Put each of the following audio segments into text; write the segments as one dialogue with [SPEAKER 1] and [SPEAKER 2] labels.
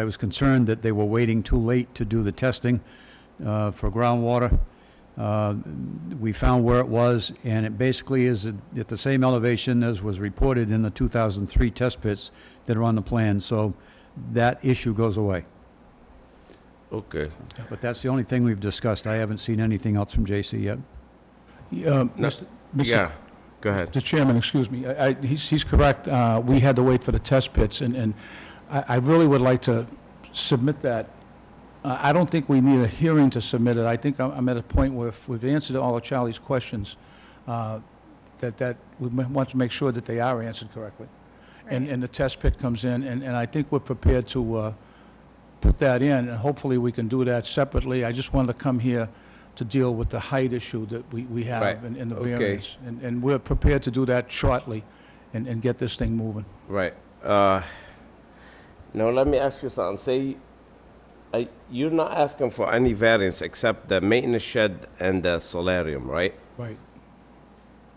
[SPEAKER 1] I was concerned that they were waiting too late to do the testing uh, for groundwater. Uh, We found where it was, and it basically is at at the same elevation as was reported in the 2003 test pits that are on the plan, so that issue goes away.
[SPEAKER 2] Okay.
[SPEAKER 1] But that's the only thing we've discussed. I haven't seen anything else from JC yet.
[SPEAKER 3] Yeah,
[SPEAKER 2] No,
[SPEAKER 3] Mr. Mr.
[SPEAKER 2] Yeah, go ahead.
[SPEAKER 3] Mr. Chairman, excuse me, I, I- he's, he's correct, Uh, we had to wait for the test pits, and, and I, I really would like to submit that. Uh, I I don't think we need a hearing to submit it, I think I'm- I'm at a point where if we've answered all of Charlie's questions, uh, that, that, we ma- want to make sure that they are answered correctly. And,
[SPEAKER 4] Right.
[SPEAKER 3] and the test pit comes in, and, and I think we're prepared to uh, put that in, and hopefully we can do that separately. I just wanted to come here to deal with the height issue that we, we
[SPEAKER 2] Right.
[SPEAKER 3] have in, in the
[SPEAKER 2] Okay.
[SPEAKER 3] variance. And, and we're prepared to do that shortly and, and get this thing moving.
[SPEAKER 2] Right. Uh, now let me ask you something. Say, uh, you're not asking for any variance except the maintenance shed and the solarium, right?
[SPEAKER 3] Right.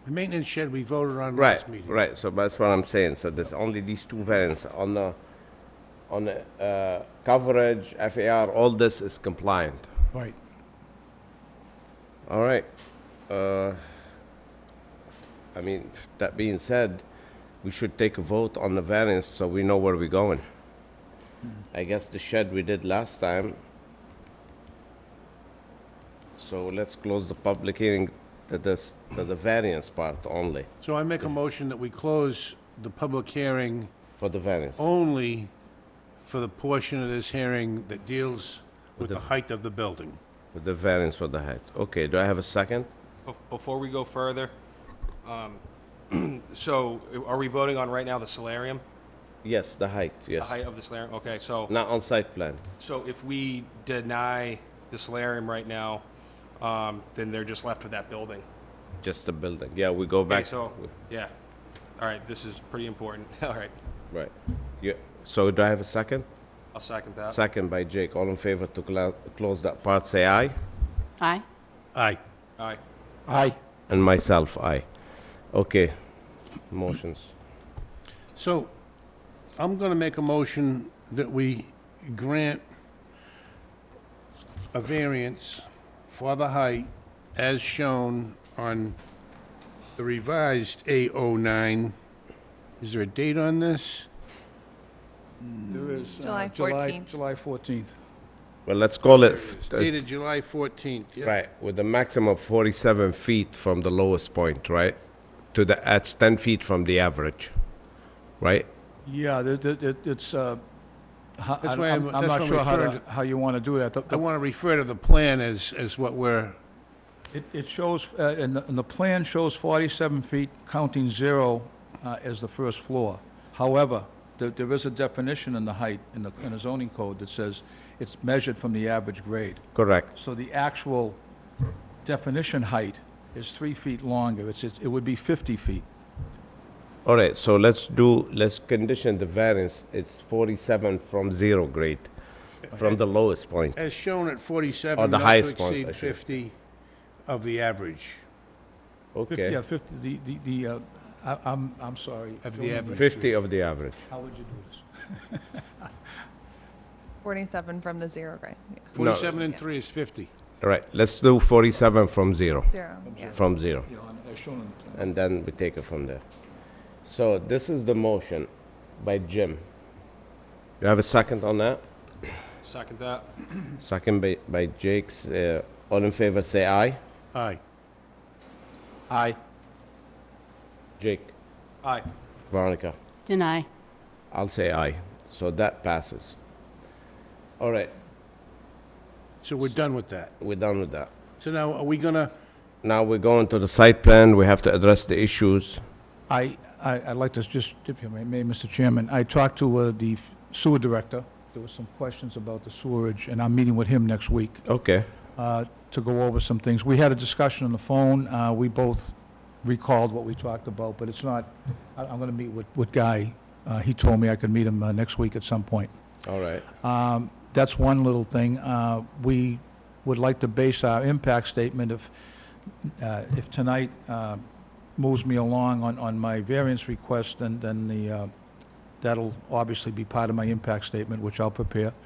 [SPEAKER 5] The maintenance shed we voted on
[SPEAKER 2] Right.
[SPEAKER 5] last meeting.
[SPEAKER 2] Right. So that's what I'm saying. So there's only these two variants on the on the uh, coverage, FAR. All this is compliant.
[SPEAKER 3] Right.
[SPEAKER 2] All right. Uh, I mean, that being said, we should take a vote on the variance so we know where we're going. I guess the shed we did last time. So let's close the public hearing to the, s- to the variance part only,
[SPEAKER 5] So I make a motion that we close the public hearing
[SPEAKER 2] for the variance.
[SPEAKER 5] only for the portion of this hearing that deals with the height of the building.
[SPEAKER 2] With the variance for the height. Okay, do I have a second?
[SPEAKER 6] Bef- Before we go further, um, so are we voting on right now the solarium?
[SPEAKER 2] Yes, the height,
[SPEAKER 6] The
[SPEAKER 2] yes.
[SPEAKER 6] height of the solarium? Okay, so,
[SPEAKER 2] Not on site plan.
[SPEAKER 6] so if we deny the solarium right now, um, then they're just left with that building.
[SPEAKER 2] Just the building. Yeah, we go
[SPEAKER 6] Okay,
[SPEAKER 2] back.
[SPEAKER 6] so, yeah. All right, this is pretty important. All right,
[SPEAKER 2] Right. Yeah, so do I have a second?
[SPEAKER 6] I'll second that.
[SPEAKER 2] Second by Jake. All in favor to cla- close that part, say aye.
[SPEAKER 4] Aye.
[SPEAKER 5] Aye.
[SPEAKER 6] All right.
[SPEAKER 3] Aye.
[SPEAKER 2] And myself, aye. Okay. Motions.
[SPEAKER 5] So I'm going to make a motion that we grant a variance for the height as shown on the revised A09. Is there a date on this?
[SPEAKER 3] There is. uh,
[SPEAKER 4] July 14th.
[SPEAKER 3] July 14th.
[SPEAKER 2] Well, let's call it, uh,
[SPEAKER 5] It's dated July 14th. yeah.
[SPEAKER 2] right, with a maximum of 47 feet from the lowest point, right? To the, that's 10 feet from the average, right?
[SPEAKER 3] Yeah, the- the- it- it's, uh, ho-
[SPEAKER 5] That's
[SPEAKER 3] I'm
[SPEAKER 5] why I'm-
[SPEAKER 3] I'm- I'm
[SPEAKER 5] that's
[SPEAKER 3] not
[SPEAKER 5] why I'm
[SPEAKER 3] sure how,
[SPEAKER 5] referring
[SPEAKER 3] to- how you want to do that. The-
[SPEAKER 5] I
[SPEAKER 3] the-
[SPEAKER 5] want to refer to the plan as, as what we're
[SPEAKER 3] It, it shows, uh, and the, and the plan shows 47 feet, counting zero uh, as the first floor. However, there, there is a definition in the height, in the, in the zoning code that says it's measured from the average grade.
[SPEAKER 2] Correct.
[SPEAKER 3] So the actual definition height is three feet longer. It's, it's- it would be 50 feet.
[SPEAKER 2] All right, so let's do, let's condition the variance, it's 47 from zero grade, from the lowest point.
[SPEAKER 5] As shown at 47.
[SPEAKER 2] Or Oh, the
[SPEAKER 5] not to
[SPEAKER 2] highest point, I
[SPEAKER 5] exceed
[SPEAKER 2] should-
[SPEAKER 5] 50 of the average,
[SPEAKER 3] Fif-
[SPEAKER 2] Okay,
[SPEAKER 3] Yeah, 50, the, the, the, uh, I, I'm, I'm sorry.
[SPEAKER 5] of the
[SPEAKER 3] Julie,
[SPEAKER 5] average.
[SPEAKER 2] 50 of the average.
[SPEAKER 3] How would you do this?
[SPEAKER 4] 47 from the zero grade. Yeah.
[SPEAKER 5] 47 and 3 is 50.
[SPEAKER 2] All right, let's do 47 from zero,
[SPEAKER 4] Zero, yeah.
[SPEAKER 2] from zero.
[SPEAKER 3] You know, on- as shown on the plan.
[SPEAKER 2] and then we take it from there. So this is the motion by Jim. You have a second on that?
[SPEAKER 6] Second that.
[SPEAKER 2] Second by, by Jake's, uh, all in favor, say aye.
[SPEAKER 5] Aye.
[SPEAKER 3] Aye.
[SPEAKER 2] Jake,
[SPEAKER 6] Aye.
[SPEAKER 2] Veronica,
[SPEAKER 7] Deny.
[SPEAKER 2] I'll say aye. So that passes. All right,
[SPEAKER 5] So we're done with that.
[SPEAKER 2] we're done with that.
[SPEAKER 5] So now, are we gonna,
[SPEAKER 2] Now we're going to the site plan, we have to address the issues.
[SPEAKER 3] I, I- I'd like to just, if you may, may, Mr. Chairman, I talked to uh, the sewer director. There were some questions about the sewerage, and I'm meeting with him next week
[SPEAKER 2] Okay.
[SPEAKER 3] uh, to go over some things. We had a discussion on the phone. Uh, We both recalled what we talked about, but it's not, I- I'm going to meet with, with Guy. Uh, He told me I could meet him uh, next week at some point.
[SPEAKER 2] All right.
[SPEAKER 3] Um, That's one little thing. Uh, We would like to base our impact statement if, uh, if tonight uh, moves me along on, on my variance request, then, then the, uh, That'll obviously be part of my impact statement, which I'll prepare.